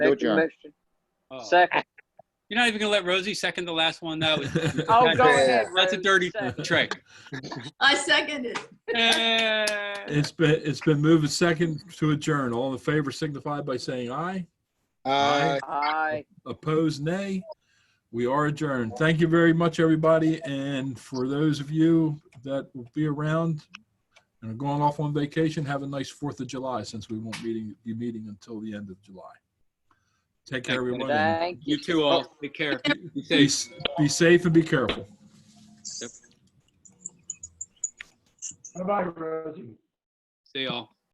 No, Second John. motion. Oh. Second. You're not even gonna let Rosie second the last one. That was Oh, go ahead. that's a Rose. dirty Second. trick. I second it. Eh. It's been, it's been moved and second to adjourn. All in favor signify by saying aye. Uh, Aye. Opposed, nay. We are adjourned. Thank you very much, everybody. And for those of you that will be around and are going off on vacation, have a nice Fourth of July since we won't meeting, be meeting until the end of July. Take care, everyone. and Thank you. You two all take care. Be safe. Be, s- be safe and be careful. See y'all.